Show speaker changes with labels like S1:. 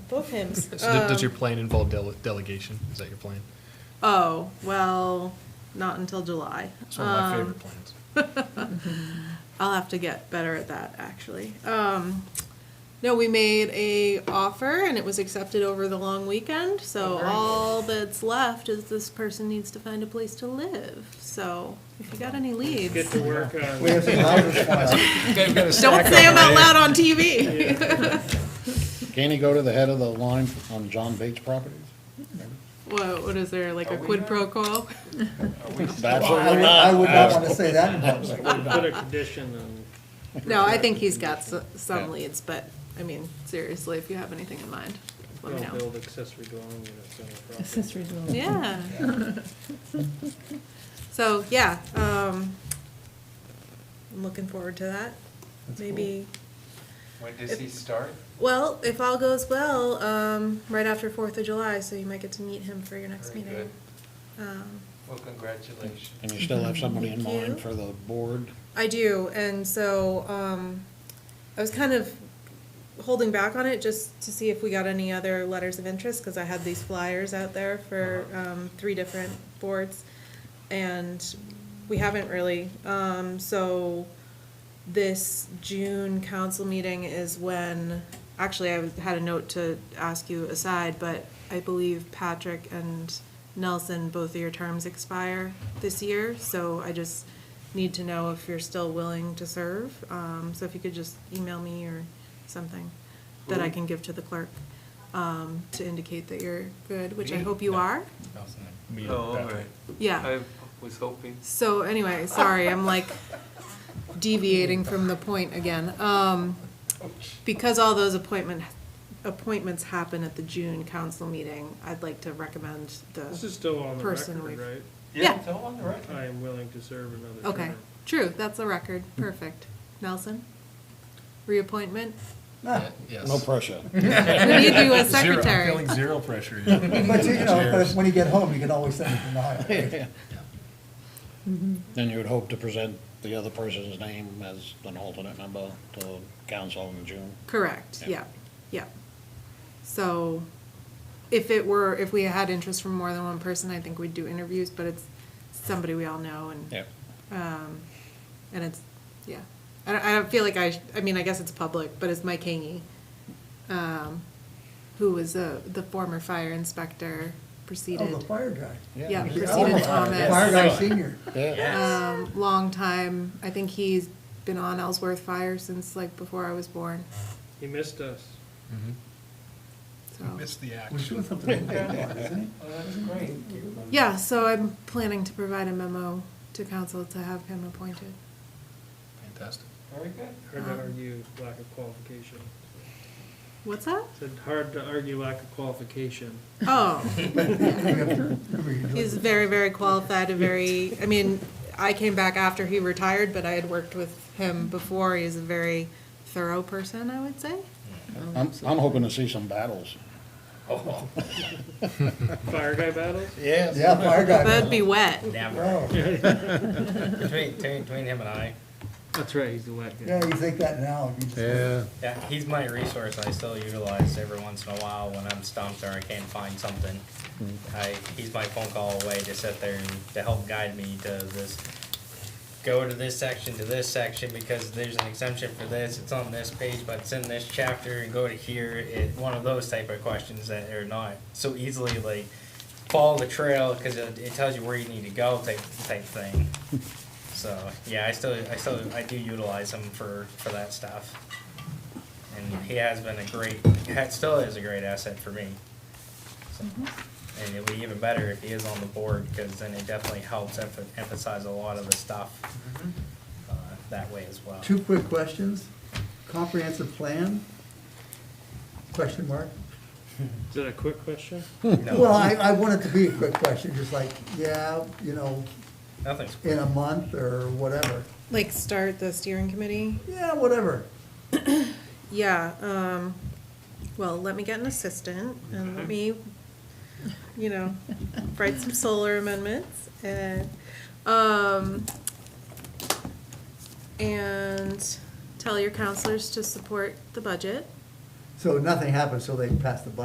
S1: both hymns. Um,
S2: So th- Does your plan involve dele- delegation? Is that your plan?
S1: Oh, well, not until July.
S2: It's one of my
S1: Um,
S2: favorite plans.
S1: I'll have to get better at that actually. Um, no, we made a offer and it was accepted over the long weekend.
S2: Oh,
S1: So all that's left is this person needs to find a place to live. So if you got any leads,
S3: Get to work on.
S4: We have some houses
S2: Um,
S1: don't say them out loud on TV.
S4: Can he go to the head of the line on John Bates properties?
S1: What, what is there like a quid pro quo?
S4: That's
S5: Well,
S4: what
S5: I would-
S4: we
S5: I would not want to say that in public.
S3: We put a condition on.
S1: No, I think he's got s- some
S4: Yeah.
S1: leads, but I mean seriously, if you have anything in mind, let me
S3: Don't
S1: know.
S3: build accessory dwelling units on the property.
S5: Accessory dwelling.
S1: Yeah. So, yeah, um, I'm looking forward to that. Maybe,
S6: When does he start?
S1: well, if all goes well, um, right after Fourth of July, so you might get to meet him for your next
S6: Very
S1: meeting. Um,
S6: Well, congratulations.
S4: And you still have somebody in
S1: Thank you.
S4: mind for the board?
S1: I do, and so, um, I was kind of holding back on it just to see if we got any other letters of interest, cause I had these flyers out there for, um, three different boards. And we haven't really, um, so this June council meeting is when, actually, I had a note to ask you aside, but I believe Patrick and Nelson, both of your terms expire this year, so I just need to know if you're still willing to serve. Um, so if you could just email me or something that I can give to the clerk, um, to indicate that you're good, which I hope you are.
S2: Me and
S6: Oh, all
S2: Patrick.
S6: right.
S1: Yeah.
S6: I was hoping.
S1: So anyway, sorry, I'm like deviating from the point again. Um, because all those appointment, appointments happen at the June council meeting, I'd like to recommend
S3: This
S1: the,
S3: is still on the
S1: Person
S3: record,
S1: we've-
S3: right?
S1: Yeah.
S6: It's all on the record.
S3: I am willing to serve another term.
S1: okay, true, that's a record, perfect. Nelson? Reappointment?
S5: Ah,
S2: Yes.
S4: No pressure.
S1: We need you as
S2: Zero- I'm
S1: secretary.
S2: feeling zero pressure. here.
S5: But you know, but when you get home, you can always send it to Nahara.
S4: Then you would hope to present the other person's name as an alternate member to the council in June.
S1: Correct, yeah, yeah.
S4: Yeah.
S1: So if it were, if we had interest from more than one person, I think we'd do interviews, but it's somebody we all know and.
S4: Yeah.
S1: Um, And it's, yeah, I don't, I don't feel like I, sh- I mean, I guess it's public, but it's Mike Hangy, um, who was the, the former fire inspector,
S5: Oh, the
S1: preceded,
S5: fire guy. "Oh,
S1: yeah,
S5: The
S1: preceded
S5: former Fire
S1: Thomas.
S5: guy senior.
S4: Yeah.
S1: Um, long time, I think he's been on Ellsworth Fire since like before I was born,
S3: He missed us.
S1: so.
S2: Missed the action.
S5: Was doing something in Denmark, isn't he?
S6: Oh, that's great.
S1: Yeah, so I'm planning to provide a memo to council to have him appointed.
S2: Fantastic.
S6: Very good.
S3: Hard to
S1: Um,
S3: argue lack of qualification.
S1: What's that?
S3: Said hard to argue lack of qualification.
S1: Oh.
S5: Remember he
S1: He's
S5: was-
S1: very, very qualified, a very, I mean, I came back after he retired, but I had worked with him before. He's a very thorough person, I would say.
S4: I'm, I'm hoping to see some battles.
S3: Fire guy battles?
S4: Yes.
S5: Yeah, fire guy. Oh,
S1: That'd be wet.
S7: Never.
S5: Wow.
S7: Between, between between him and I,
S3: That's right, he's elected.
S5: Yeah, you think that now. you just-
S7: yeah, he's my resource I still utilize every once in a while when I'm stumped or I can't find something. I, he's my phone call away to sit there and to help guide me to this, go to this section, to this section, because there's an exemption for this, it's on this page, but it's in this chapter, and go to here, it, one of those type of questions that are not so easily like, follow the trail, cause it, it tells you where you need to go type, type thing. So, yeah, I still, I still, I do utilize him for, for that stuff. And he has been a great, ha- still is a great asset for me. So, And it'd be even better if he is on the board, because then it definitely helps emph- emphasize a lot of the stuff uh, that way as well.
S5: Two quick questions. Comprehensive plan? Question mark?
S3: Is that a quick question?
S7: No,
S5: Well, I, I want it to be a quick question, just like, yeah, you know,
S7: Nothing's,
S5: in a month or whatever.
S1: Like start the steering committee?
S5: Yeah, whatever.
S1: Yeah, um, well, let me get an assistant and let me, you know, write some solar amendments and, um, and tell your counselors to support the budget.
S5: So nothing happens till they pass the budget.